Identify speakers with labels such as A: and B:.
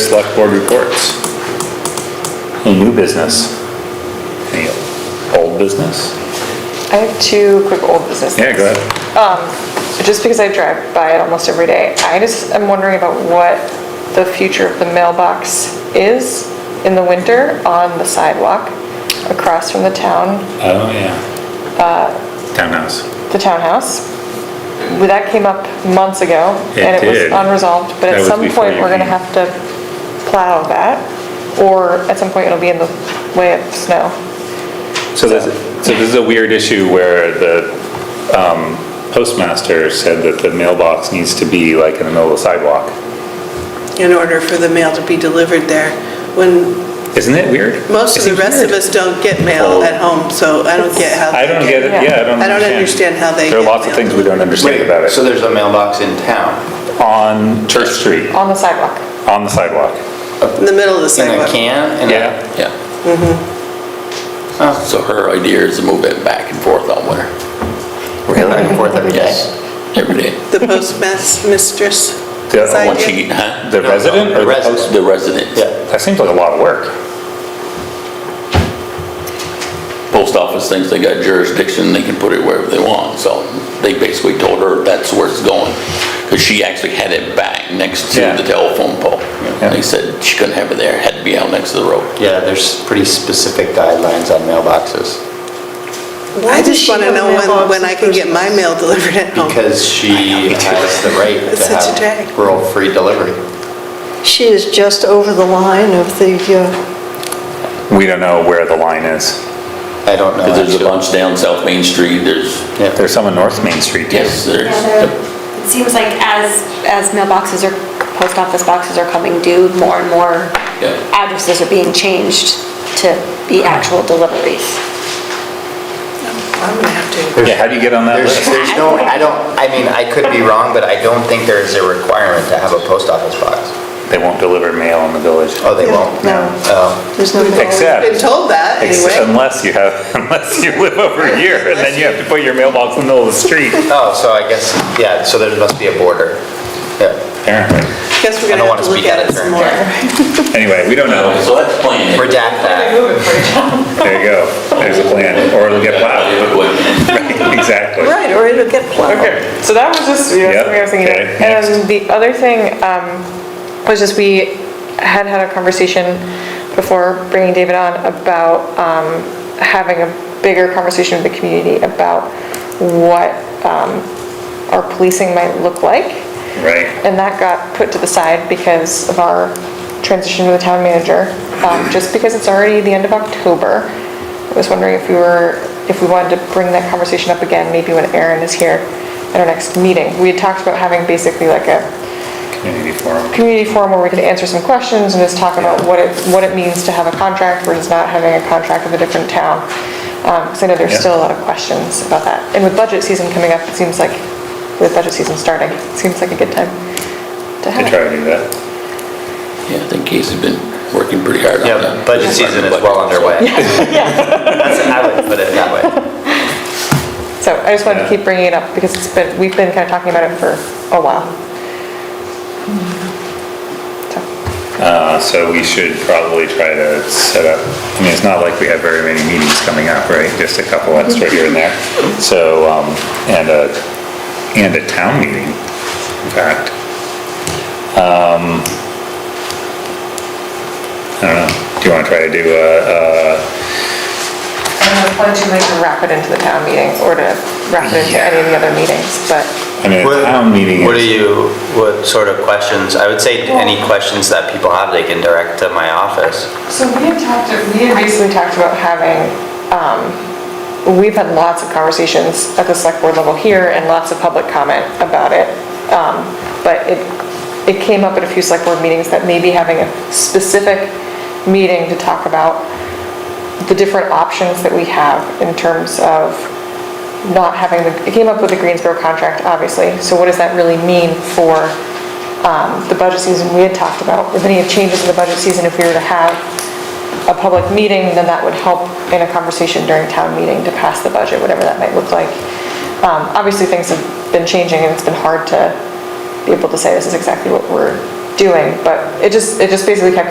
A: Select board reports. Any new business? Any old business?
B: I have two quick old business things.
A: Yeah, go ahead.
B: Just because I drive by it almost every day, I just am wondering about what the future of the mailbox is in the winter on the sidewalk across from the town,
A: Oh, yeah. Uh, Townhouse.
B: the townhouse. Well, That came up months ago and
A: It
B: it was
A: did.
B: unresolved, but
A: That
B: at
A: was
B: some
A: before
B: point,
A: you
B: we're gonna
A: came.
B: have to plow that or at some point it'll be in the way of snow.
A: So this, so this is a weird issue where the um, postmaster said that the mailbox needs to be like in the middle of the sidewalk.
C: in order for the mail to be delivered there. When
A: Isn't it weird?
C: most
A: It
C: of the
A: seems
C: rest of
A: weird.
C: us don't get
D: Oh.
C: mail at home, so I don't get how.
A: I
C: they
A: don't get it, yeah, I don't understand.
C: I don't understand how they
A: There are
C: get
A: lots of
C: mail.
A: things we don't understand about
D: So
A: it.
D: there's a mailbox in town,
A: On Church Street,
B: On the sidewalk.
A: on the sidewalk.
C: In the middle of the
D: in a
C: sidewalk.
D: can, in a...
A: Yeah.
E: Yeah. Mm-hmm. So her idea is to move it back and forth all winter,
D: We're going back and forth every day.
E: every day.
C: The postmas- mistress.
A: The-
C: Side
E: Once
C: gate.
E: you get, huh?
A: The
D: no,
A: resident or
D: the
A: the
D: resident.
A: post?
E: The residents.
D: Yeah.
A: That seems like a lot of work.
E: Post office thinks they got jurisdiction, they can put it wherever they want, so they basically told her that's where it's going. Because she actually had it back next to
A: Yeah.
E: the telephone pole.
A: Yeah. Oh,
E: They said she couldn't have it there, had to be out next to the road.
D: Yeah, there's pretty specific guidelines on mailboxes
C: I just want to know when, when I can get my mail delivered at home.
D: because she has the right
C: It's
D: to
C: such a drag.
D: have rural-free delivery.
F: She is just over the line of the, uh,
A: We don't know where the line is.
D: I don't know.
E: Because there's a
D: actually.
E: bunch down South Main Street, there's,
D: Yeah.
A: There's some on North Main Street, too.
E: yes, there's,
G: Yeah, there- It seems like as, as mailboxes or post office boxes are coming due, more and more
E: Yeah.
G: addresses are being changed to be actual deliveries.
C: I'm going to have to.
A: Yeah, how do you get on that
D: There's,
A: list?
D: there's no, I don't, I mean, I could be wrong, but I don't think there is a requirement to have a post office box.
A: They won't deliver mail in the village.
D: Oh, they won't?
F: No.
D: Oh,
F: there's no mail.
C: Been
A: Except,
C: told that
A: ex-
C: anyway.
A: unless you have, unless you live over here, and then you have to put your mailbox in the middle of the street,
D: oh, so I guess, yeah, so there must be a border. Yeah,
A: apparently.
C: Guess we're
D: I
C: going to have
D: don't wanna
C: to look
D: speak out
C: at it
D: of
C: some
D: turn.
C: more.
A: Anyway, we don't know.
E: so that's planned.
D: redact that.
A: There you go. There's a plan, or it'll get plowed. Right, Exactly.
F: Right, or it'll get plowed.
B: Okay, so that was just, you know,
A: Yep,
B: something I was thinking
A: okay,
B: about. And the other thing um, was just, we had had a conversation before bringing David on about um, having a bigger conversation with the community about what um, our policing might look like.
A: Right.
B: And that got put to the side because of our transition to the town manager. Um, Just because it's already the end of October, I was wondering if we were, if we wanted to bring that conversation up again, maybe when Aaron is here at our next meeting. We had talked about having basically like a
A: Community forum.
B: community forum where we could answer some questions and just talk about what it, what it means to have a contract versus not having a contract with a different town. Because I know there's
A: Yeah.
B: still a lot of questions about that. And with budget season coming up, it seems like, with budget season starting, it seems like a good time to
A: They
B: have it.
A: try to do that.
E: Yeah, I think Casey's been working pretty hard on that.
D: Yeah, budget season is well underway. That's- I would put it that way.
B: So I just wanted to
A: Yeah.
B: keep bringing it up because it's been, we've been kind of talking about it for a while. So,
A: Uh, So we should probably try to set up, I mean, it's not like we have very many meetings coming up, right? Just a couple extra here and there. So, um, and a, and a town meeting, in fact. Um, I don't know, do you want to try to do a, a
B: I wanted to like wrap it into the town meeting or to wrap it into any of the other meetings, but
A: I mean, a town meeting
D: What are
A: is,
D: you, what sort of questions? I would say any questions that people have, they can direct to my office.
B: So we had talked, we had basically talked about having, um, we've had lots of conversations at the select board level here and lots of public comment about it. Um, But it, it came up at a few select board meetings that maybe having a specific meeting to talk about the different options that we have in terms of not having, the it came up with the Greensboro contract, obviously. So what does that really mean for um, the budget season we had talked about? With any changes in the budget season, if we were to have a public meeting, then that would help in a conversation during town meeting to pass the budget, whatever that might look like. Um, Obviously, things have been changing and it's been hard to be able to say this is exactly what we're doing, but it just, it just basically kept